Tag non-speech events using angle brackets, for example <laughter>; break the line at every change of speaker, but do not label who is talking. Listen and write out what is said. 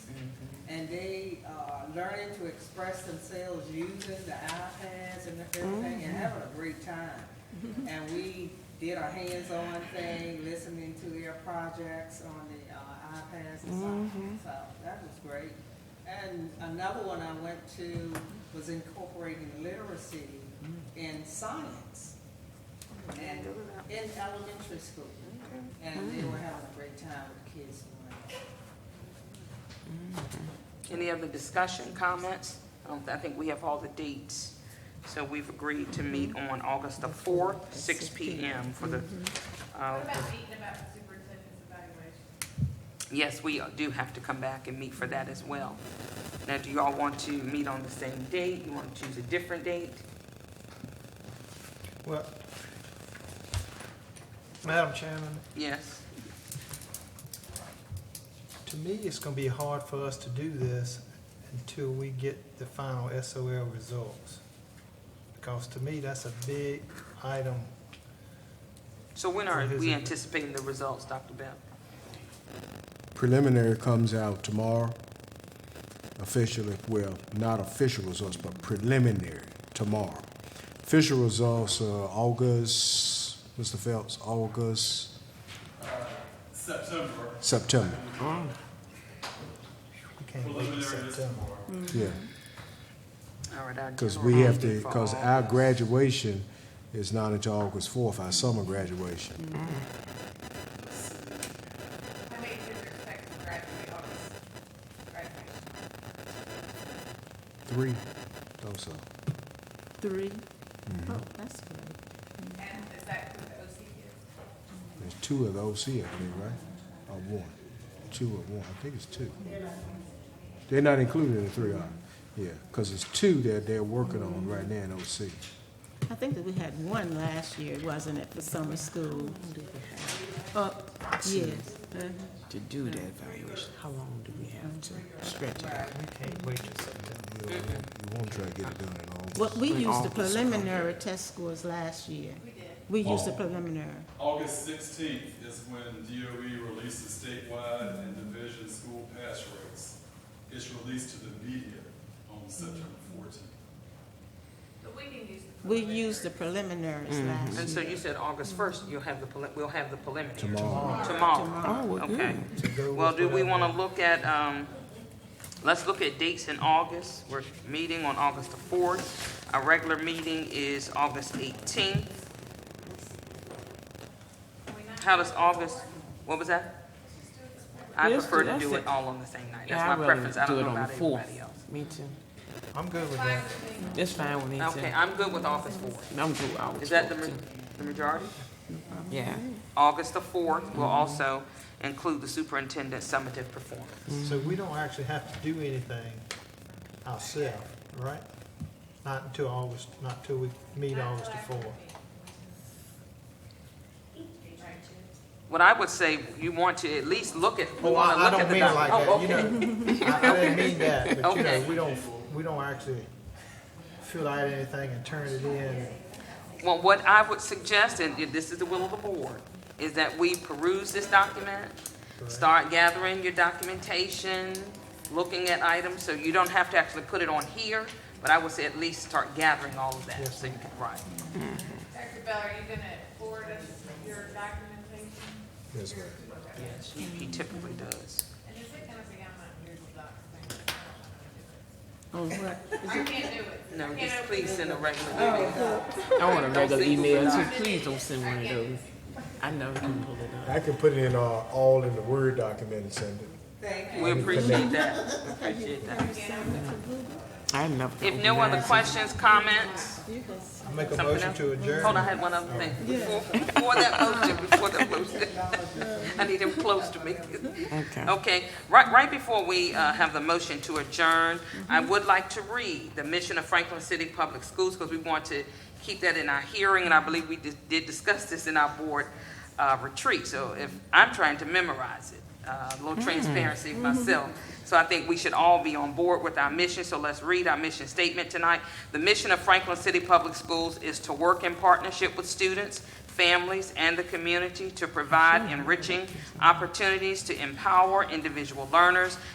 and they are learning to express themselves using the iPads and everything and having a great time. And we did a hands-on thing, listening to their projects on the uh, iPads and stuff. So that was great. And another one I went to was incorporating literacy in science and in elementary school. And they were having a great time with the kids.
Any other discussion, comments? I don't, I think we have all the dates. So we've agreed to meet on August the 4th, six PM for the,
What
uh,
about meeting about the superintendent's evaluation?
yes, we do have to come back and meet for that as well. Now, do you all want to meet on the same date? You want to choose a different date?
Well, Madam Chairman,
Yes,
to me, it's gonna be hard for us to do this until we get the final SOL results. Because to me, that's a big item.
so when are we anticipating the results, Dr. Bell?
Preliminary comes out tomorrow. Official, well, not official results, but preliminary tomorrow. Official results are August, Mr. Phelps, August,
September.
September.
We can't wait till
Preliminary is
September.
tomorrow.
Yeah,
All right, our
because
general
we have to,
meeting for
because
all-
our graduation is not until August fourth, our summer graduation.
I mean, do you expect to graduate August graduation?
Three, thought so.
Three?
Mm-hmm.
Oh, that's good.
And is that with the OC kids?
There's two of the OC, I think, right? Or one? Two or one, I think it's two. They're not included in the three, are they? Yeah, because it's two that they're working on right now in OC.
I think that we had one last year, wasn't it, for summer school? Oh, yes.
Mm-hmm.
Uh-huh.
to do the evaluation, how long do we have to stretch it out?
We can't wait till September.
You want to try to get it done in August.
Well, we used the
August.
preliminary test scores last year. We used the preliminary.
August sixteenth is when DOE releases statewide and division school pass rates. It's released to the media on September fourteenth.
But we can use the.
We used the preliminaries
Mm-hmm. And
last
so
year.
you said August 1st, you'll have the, prelim- we'll have the preliminary.
Tomorrow.
Tomorrow.
Oh, well, good.
Okay.
To go with
Well, do we
whatever.
want to look at, um, let's look at dates in August. We're meeting on August the 4th. Our regular meeting is August 18th. How does August, what was that? I
Let's
prefer
do-
to
that's
do
it.
it all on the same night.
Yeah, I'd
That's my
rather
preference. I
do
don't
it
know
on the
about
fourth.
everybody else.
Me too.
I'm good with that.
That's fine with me too.
Okay, I'm good with August 4th.
I'm good. I was
Is that the,
good,
ma-
too.
the majority?
Yeah.
August the 4th will also include the superintendent summative performance.
So we don't actually have to do anything ourselves, right? Not until August, not until we meet August the fourth.
What I would say, you want to at least look at, we
Oh,
want to
I I
look at
don't
the.
mean it like
doc-
that, you
Oh, okay. <laughs>
know. I I didn't mean that, but you know,
Okay.
we don't, we don't actually fill out anything and turn it in.
Well, what I would suggest, and if this is the will of the board, is that we peruse this document, start gathering your documentation, looking at items, so you don't have to actually put it on here, but I would say at least start gathering all of that,
Yes,
so you can write.
Dr. Bell, are you gonna forward us your documentation?
Yes, ma'am.
Yes. He typically does.
And is it gonna be on my ears box thing?
Oh, what?
I can't do it.
No,
I can't
just
open
please
it.
send a regular email.
I want a regular
send
email
people
too. Please don't send one of those. I never can pull it up.
I can put it in all, all in the Word document and send it.
Thank you.
We appreciate that, We appreciate that.
I never. can
If no
open
other
that.
questions, comments,
I make a
Something
motion
else?
to
hold on, I
adjourn.
had one other thing. Before, before that motion, before that motion, <laughs> I need him close to me.
Okay.
Okay, right, right before we uh, have the motion to adjourn, I would like to read the mission of Franklin City Public Schools because we want to keep that in our hearing, and I believe we did did discuss this in our board uh, retreat. So if, I'm trying to memorize it, uh, a little transparency myself. So I think we should all be on board with our mission, so let's read our mission statement tonight. The mission of Franklin City Public Schools is to work in partnership with students, families, and the community to provide enriching opportunities to empower individual learners